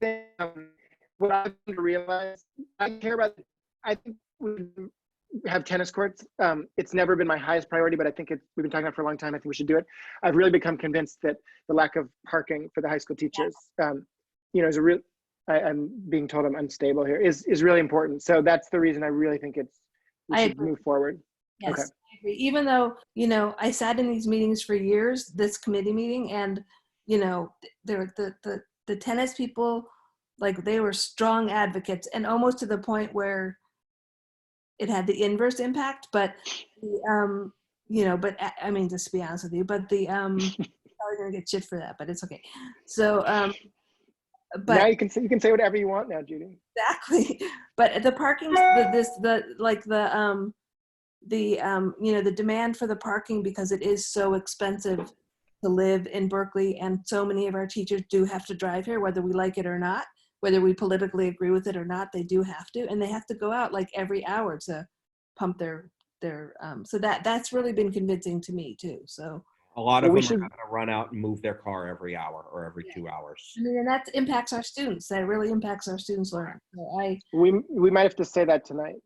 thing, um, what I've come to realize, I care about, I think we have tennis courts. Um, it's never been my highest priority, but I think it's, we've been talking about it for a long time. I think we should do it. I've really become convinced that the lack of parking for the high school teachers, um, you know, is a real, I, I'm being told I'm unstable here, is, is really important. So that's the reason I really think it's, we I should agree. move forward. Yes, Okay. I agree. Even though, you know, I sat in these meetings for years, this committee meeting, and, you know, th- there the, the, the tennis people, like they were strong advocates and almost to the point where it had the inverse impact, but, the, um, you know, but I- I mean, just to be honest with you, but the, um, probably gonna get shit for that, but it's okay. So, um, but. now you can say, you can say whatever you want now, Judy. exactly but the parking the, this the like the um the um you know the demand for the parking because it is so expensive to live in berkeley and so many of our teachers do have to drive here whether we like it or not whether we politically agree with it or not they do have to and they have to go out like every hour to pump their their um so that that's really been convincing to me too so A lot of Well, them we are should- going to run out and move their car every hour or every Yeah. two hours. Mm. i mean and that impacts our students that really impacts our students learning so i We, we might have to say that tonight.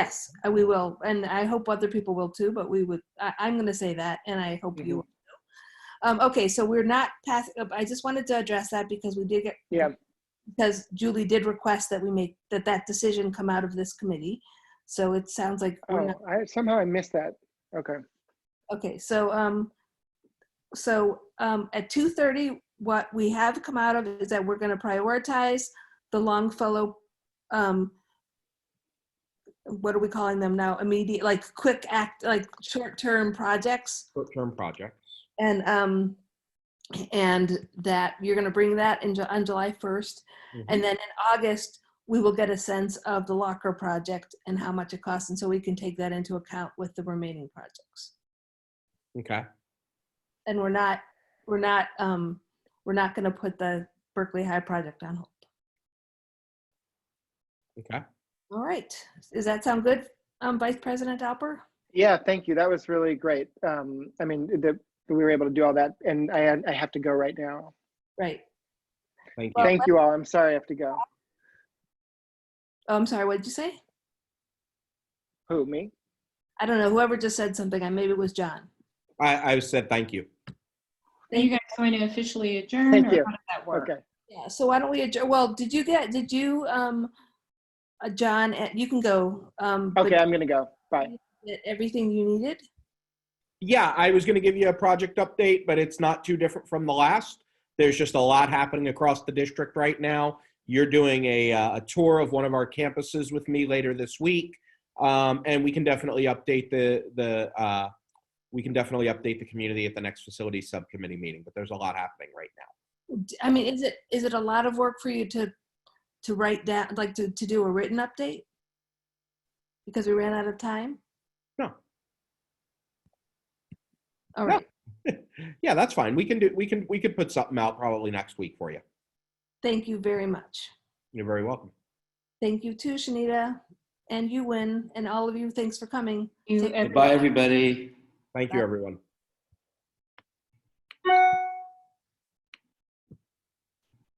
Yes, uh, we will, and I hope other people will too. But we would. I, I'm going to say that, and I hope you. Mhm. Will. Um, okay, so we're not passing. I just wanted to address that because we did get. Yeah. Because Julie did request that we make that that decision come out of this committee, so it sounds like we're Oh, not, I somehow I missed that. Okay. okay. So um, so um, at 2:30, what we have come out of is that we're going to prioritize the Longfellow. Um, what are we calling them now? Immediate, like quick act, like short-term projects, Short-term projects. and um, and that you're going to bring that in Ju- on July 1st, and then in August we will get a sense of the locker project and how much it costs, and so we can take that into account with the remaining projects. Okay. and we're not we're not um we're not going to put the berkeley high project on hold Okay. all right does that sound good um vice president alper Yeah, thank you. That was really great. Um, I mean, the, we were able to do all that, and I had- I have to go right now. right Thank you. Well, Thank you all. I'm sorry I have to go. oh i'm sorry what did you say Who me? i don't know whoever just said something i maybe it was john I, I said thank you. Are you guys going to officially adjourn? Thank or you. How does that work? Okay. yeah so why don't we adjourn well did you get did you um uh, john uh, you can go um but Okay, I'm gonna go. Bye. did everything you needed Yeah, I was going to give you a project update, but it's not too different from the last. There's just a lot happening across the district right now. You're doing a, uh, a tour of one of our campuses with me later this week, um, and we can definitely update the the uh, we can definitely update the community at the next facilities subcommittee meeting. But there's a lot happening right now. D- i mean is it is it a lot of work for you to to write down like to, to do a written update because we ran out of time No. all No. right Yeah, that's fine. We can do we can we could put something out probably next week for you. Thank you very much. You're very welcome. Thank you too, Shanita, and you win, and all of you, thanks for coming. Take- You- everybody- Goodbye, everybody. Thank you, everyone.